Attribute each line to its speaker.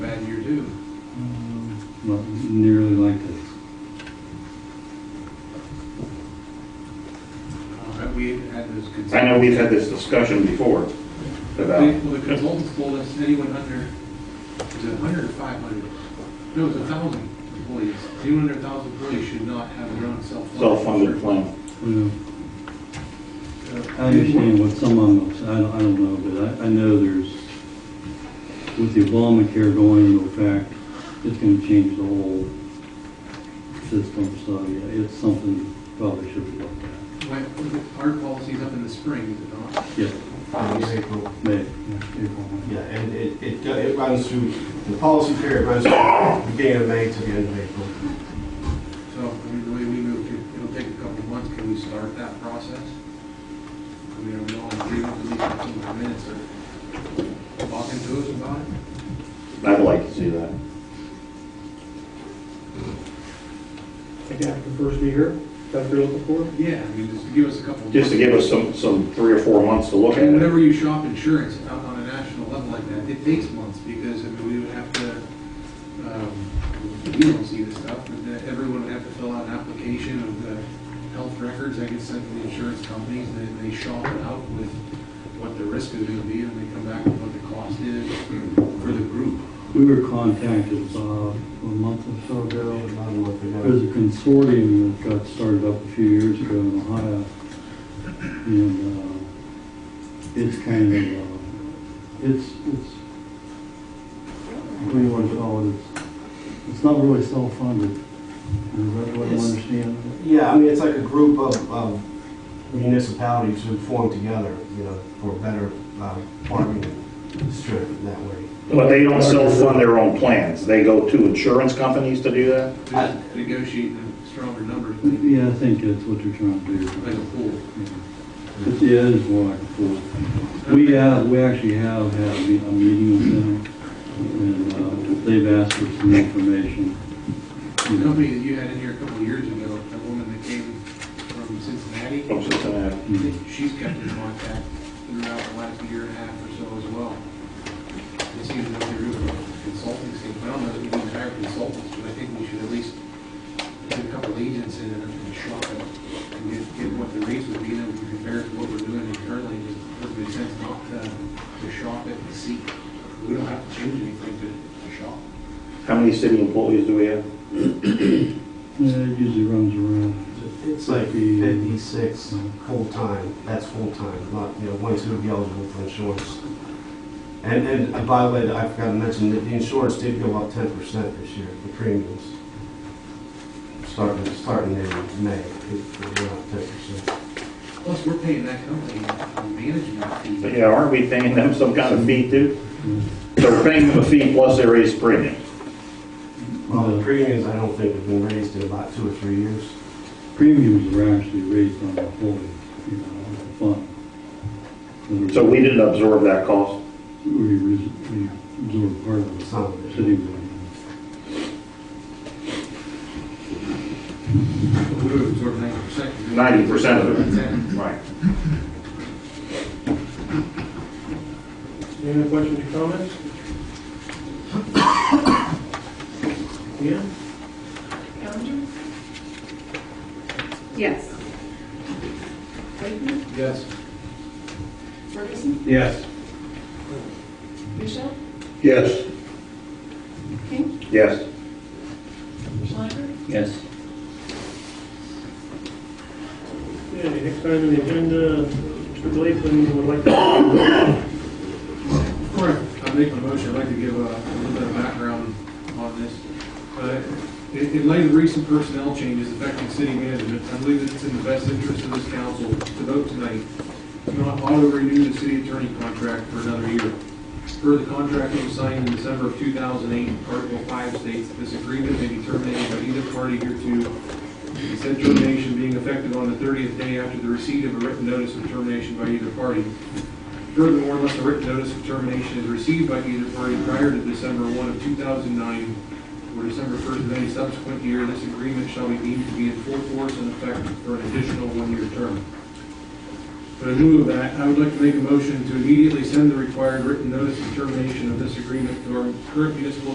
Speaker 1: not nearly like this.
Speaker 2: Uh, We had this consultant.
Speaker 3: I know we've had this discussion before
Speaker 2: They-
Speaker 3: about,
Speaker 2: Well, the consultant told us anyone under, is it 100 or 500? No, it's 1,000 employees. Anyone under 1,000 employees should not have their own self-funded.
Speaker 3: self-funded plan.
Speaker 1: Well, I
Speaker 2: Uh,
Speaker 1: understand what some of them, I don't, I don't know, but I, I know there's, with the Obamacare going into effect, it's gonna change the whole system, so yeah, it's something probably should be looked at.
Speaker 2: my- Our policy's up in the spring, is it not?
Speaker 1: Yes,
Speaker 4: Um, it's April.
Speaker 1: May, yeah, April, May.
Speaker 4: Yeah, and it, it, go- it runs through, the policy period runs from beginning of May to the end of April.
Speaker 2: So, I mean, the way we move, it- it'll take a couple of months, can we start that process? I mean, are we all in agreement with these couple of minutes or talking to us about it?
Speaker 3: I'd like to see that.
Speaker 5: Like after the first year, that's what you're looking for?
Speaker 2: Yeah, I mean, just give us a couple. of
Speaker 3: Just to give us some, some three or four months to look at
Speaker 2: And
Speaker 3: it.
Speaker 2: whenever you shop insurance on on a national level like that, it takes months because, I mean, we would have to, um, we don't see this stuff, but then everyone would have to fill out an application of the health records that get sent to the insurance companies, and then they shop it out with what the risk is gonna be, and they come back with what the cost is for the group.
Speaker 1: We were contacted, uh, a month or so ago,
Speaker 4: I don't know if we
Speaker 1: There's
Speaker 4: know.
Speaker 1: a consortium that got started up a few years ago in Ohio, and uh, it's kind of, uh, it's, it's, what do you want to call it? It's- It's not really self-funded. Is that what I
Speaker 4: It's-
Speaker 1: understand?
Speaker 4: Yeah, I mean, it's like a group of, of municipalities who form together, you know, for better, um, bargaining strip in that way.
Speaker 3: But they don't self-fund their own plans. They go to insurance companies to do that?
Speaker 4: I-
Speaker 2: Just Negotiate the stronger numbers, like
Speaker 1: Yeah, I think that's what they're trying to do.
Speaker 2: like a pool.
Speaker 1: It is more like a pool. We have, we actually have had a me- a meeting with them, and uh, they've asked for some information. you
Speaker 2: The
Speaker 1: know.
Speaker 2: company that you had in here a couple of years ago, that woman that came from Cincinnati.
Speaker 3: From Cincinnati.
Speaker 2: She's kept in contact throughout the last year and a half or so as well. It seems that the group of consultants, I don't know if we need to hire consultants, but I think we should at least get a couple agents in and- and shop it and get, get what the rates would be, and then we can compare it to what we're doing internally, just doesn't make sense not to, to shop it and see. We don't have to change anything to, to shop.
Speaker 3: How many city employees do we have?
Speaker 1: Yeah, it usually runs around.
Speaker 4: It's like fifty-six full-time, that's full-time, not, you know, ones who would be eligible for insurance. And, and uh, by the way, I forgot to mention, that the insurance did go up ten percent this year, the premiums. Starting, starting in May, it it went up ten percent.
Speaker 2: Plus, we're paying that company a management fee.
Speaker 3: But yeah, aren't we paying them some kind of fee too?
Speaker 1: Mm.
Speaker 3: So we're paying them a fee plus they raise premium.
Speaker 4: Well, the
Speaker 1: The
Speaker 4: premiums, I don't think have been raised in about two or three years.
Speaker 1: premiums were actually raised on the whole, you know, on the fund.
Speaker 3: So we didn't absorb that cost.
Speaker 1: We res- we absorbed part of
Speaker 4: Some of
Speaker 1: the
Speaker 4: it.
Speaker 1: city money.
Speaker 2: We would absorb ninety percent.
Speaker 3: 90% of it. Right.
Speaker 5: Any other questions or comments? Yeah?
Speaker 6: Bellinger? Yes. Wakeman?
Speaker 2: Yes.
Speaker 6: Ferguson?
Speaker 4: Yes.
Speaker 6: Michelle?
Speaker 3: Yes.
Speaker 6: King?
Speaker 3: Yes.
Speaker 6: Schlenker?
Speaker 1: Yes.
Speaker 5: Okay, next item on the agenda, Mr. Blakeman would like to...
Speaker 2: Before I I make my motion, I'd like to give uh, a little bit of background on this. Uh, In in light of recent personnel changes affecting city management, I believe that it's in the best interest of this council to vote tonight to not auto-renew the city attorney contract for another year. Per the contract that was signed in December of 2008, Article 5 states that this agreement may be terminated by either party hereto, and said termination being effective on the 30th day after the receipt of a written notice of termination by either party. Furthermore, unless a written notice of termination is received by either party prior to December 1 of 2009 or December 1st of any subsequent year, this agreement shall be deemed to be in full force and effect for an additional one-year term. But in lieu of that, I would like to make a motion to immediately send the required written notice of termination of this agreement to our current municipal